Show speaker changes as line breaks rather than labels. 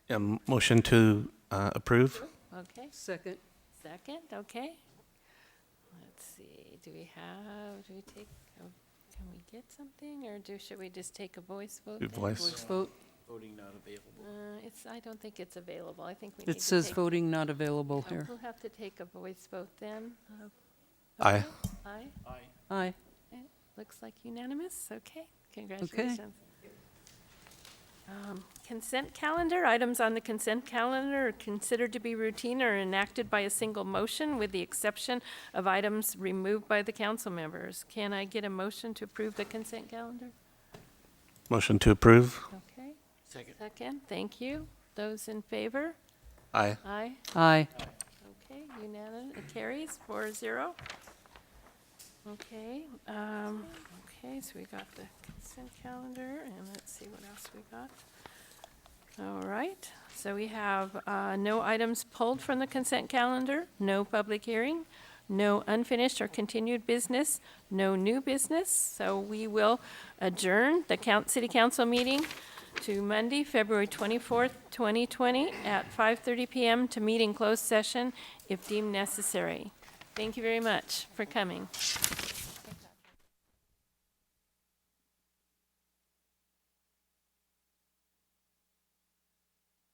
Yeah, m- motion to uh, approve?
Okay,
Second.
second, okay. Let's see, do we have, do we take, oh, can we get something, or do, should we just take a voice vote?
Do
then?
Voice.
Vote,
Voting not available.
Uh, it's, I don't think it's available, I think we need to
it says
take-
voting not available
oh,
here.
We'll have to take a voice vote then. Uh,
Aye.
okay, Aye,
Aye.
Aye.
looks like unanimous, okay, congratulations. Um, Consent calendar, items on the consent calendar are considered to be routine or enacted by a single motion with the exception of items removed by the council members. Can I get a motion to approve the consent calendar?
Motion to approve?
Okay,
Second.
second, thank you. Those in favor?
Aye.
Aye.
Aye.
Okay, unanimous, it carries four zero. Okay, um, okay, so we got the consent calendar, and let's see what else we got. All right, so we have, uh, no items pulled from the consent calendar, no public hearing, no unfinished or continued business, no new business, so we will adjourn the coun city council meeting to Monday, February 24th, 2020, at 5:30 PM to meet in closed session if deemed necessary. Thank you very much for coming.